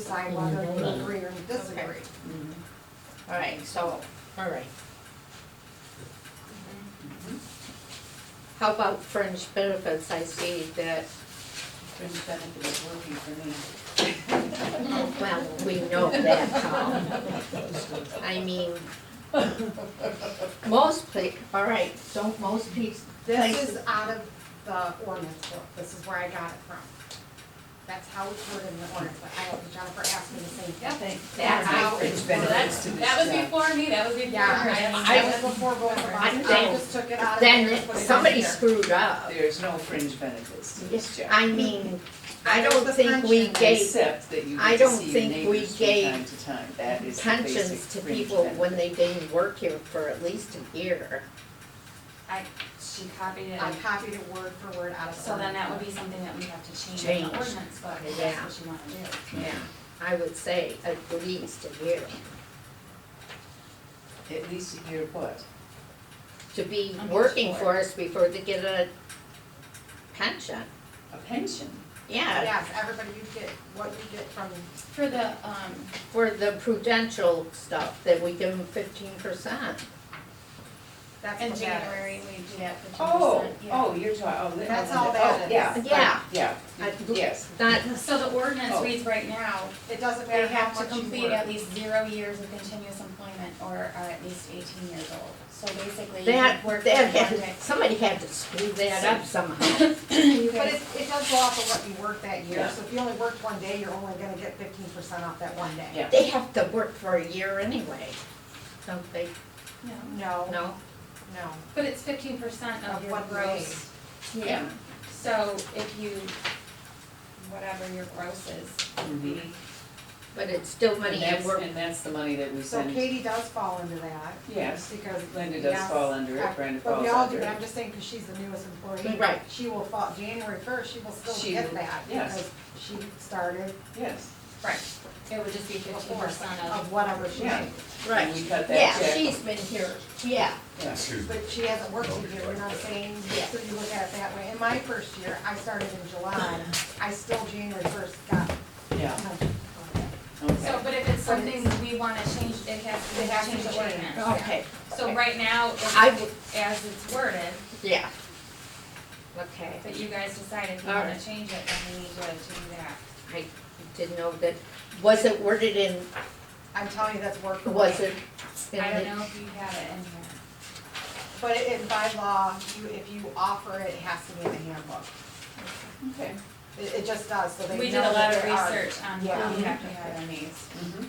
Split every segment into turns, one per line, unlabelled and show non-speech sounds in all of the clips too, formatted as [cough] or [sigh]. sidewalk, whether you agree or disagree.
All right, so, all right.
Mm-hmm.
How about fringe benefits? I see that,
Fringe benefit is working for me.
Oh, well, we know that, Tom. I mean, most pla, all right, don't most pe-
This
places,
is out of the ordinance book, this is where I got it from. That's how it's worded in the ordinance, but I hope Jennifer asked me the same
Yeah,
thing.
thanks.
that's how it's
It's been
Well,
a-
worded.
that's, that was before me, that was before.
Yeah,
her. I mean,
I,
that
that was before going to
I'm
Boston, I
saying,
just took it out of.
Then
there,
it-
put it in
somebody
there.
screwed up.
There's no fringe benefits to this job.
I mean, I don't think we gave
Except that you
I
get to
don't
see your
think we
neighbors from
gave
time to time, that is the basic
pensions to
fringe
people when
benefit.
they didn't work here for at least a year.
She copied it,
I copied it word for word out of.
so then that would be something that we have to change in
Change.
the ordinance, but if
Yeah.
that's what you wanna do.
Yeah. I would say at least a year,
At least a year what?
to be
I'm
working
sure.
for us before they get a pension.
A pension.
Yeah,
Yes, everybody, you get what you get from,
For the, um,
for the prudential stuff, that we give them fifteen percent.
that's
in
what that
January,
is.
we do that for two percent,
Oh,
yeah.
oh, you're talking, oh.
That's
oh,
all that
oh,
is.
Yeah, right,
Yeah.
yeah,
I-
yes.
Not,
So the ordinance
Oh.
reads right now,
It doesn't
they
matter how
have
much
to
you
complete
work.
at least zero years of continuous employment or are at least eighteen years old. So basically, you
that,
could work for
that
one
had,
day.
somebody had to screw that up somehow.
You
But
guys-
it, it does go off of what you worked that year,
Yeah.
so if you only worked one day, you're only gonna get fifteen percent off that one day.
Yeah.
They have to work for a year anyway, don't they?
No,
No, no,
No?
but it's fifteen percent of
Of
your
what
Oh, gross.
grade?
Yeah.
So if you, whatever your gross is, would be,
But it's still
And
money at
Mm-hmm. that's,
work.
and that's the money that we
so
send,
Katie does fall into that,
yes,
because.
Linda does
yes,
fall under
I-
it, Brenda
But
falls
we all do,
under
but
it.
I'm just saying, cause she's the newest employee.
Right.
She will fall, January first, she will still
She
get
will,
that,
yes.
because she started
Yes,
right, it would just be fifteen
before,
percent of,
of whatever she
Yeah.
made.
and we cut that
Yeah,
check.
she's been here, yeah.
Yeah.
Excuse me.
But she hasn't worked a year, you know what I'm saying?
Yeah.
So you look at it that way. In my first year, I started in July, I still January first got.
Yeah,
Oh. so,
okay.
but if it's something we wanna change, it
It has
has
to
to Oh, change
change.
the ordinance.
Okay,
So right now, if
I
it- as it's worded,
yeah. Okay,
but you guys decide if you
All
wanna
right.
change it, then we need to do that.
I didn't know that, was it worded in,
I'm telling you, that's work for me.
was it? in
I
the-
don't know if you have it in here.
But it- it by law, you, if you offer it, it has to be in the handbook.
Okay.
It, it just does, so they know
We did a lot
that
of
there are-
research on
Yeah.
what we have to have in these.
Mhm.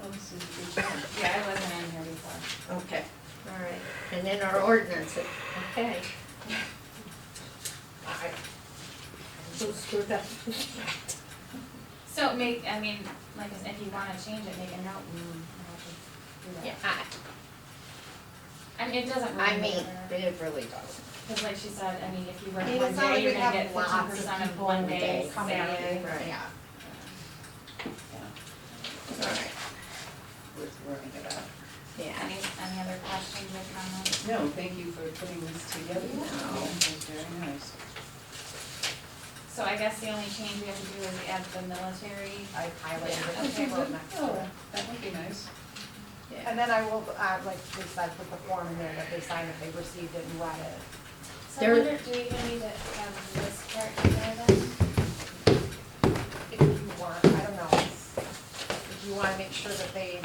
Well, this is a good job.
Yeah, I wasn't in here before.
Okay, all right, and then our ordinance, okay. I, who screwed up?
So make, I mean, like, I said, if you wanna change it, make a note and we'll have to do that.
Yeah, I,
I mean, it doesn't
I
really
mean,
matter,
it really doesn't.
because like she said, I mean, if you work
I mean,
one
it's not like
day, you're
we
gonna
have
get fifteen
lots
percent
of
of one
people
day
come in,
salary.
right.
yeah.
All right.
Worth worrying about.
Yeah,
Any, any other questions or comments?
No, thank you for putting this together.
No.
That was very nice.
So I guess the only change we have to do is add the military.
I
Yeah.
highlighted it,
Okay,
I wrote next
[laughs]
to it.
Oh, that would be nice.
yeah,
And then I will, uh, like we said, put the form in there that they signed if they received it and read it.
So I
There-
wonder, do we even need to have this part in there then?
If you want, I don't know, it's- if you wanna make sure that they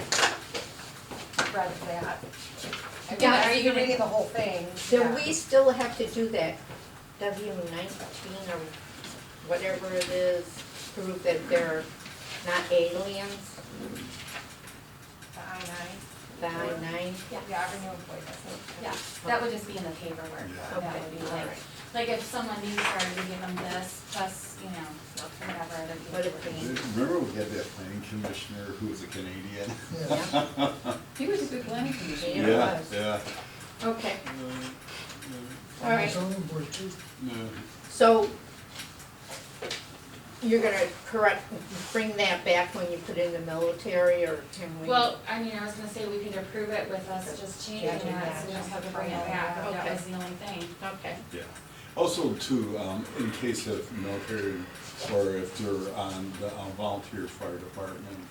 read that. I mean,
Yeah,
are
if
you
you're
gonna-
reading the whole thing.
do
yeah.
we still have to do that W nineteen or whatever it is, prove that they're not aliens,
The I nine.
the I nine?
Yeah, every new employee does it.
Yeah, that would just be in the paperwork,
Yeah.
that would be
Okay, all
like,
right.
like if someone new started, we give them this, plus, you know, whatever, other
What if
paperwork.
Remember we had that planning commissioner who was a Canadian?
He was a good planning commissioner.
Yeah.
Yeah,
was.
yeah.
Okay, all
Alright.
right.
No.
So you're gonna correct, bring that back when you put in the military or can we?
Well, I mean, I was gonna say, we could approve it with us just changing
Yeah,
that, so we don't have to bring it back,
yeah.
but that
Okay.
was the only thing.
Okay,
Yeah. Also too, um, in case of military or if they're on the uh, volunteer fire department,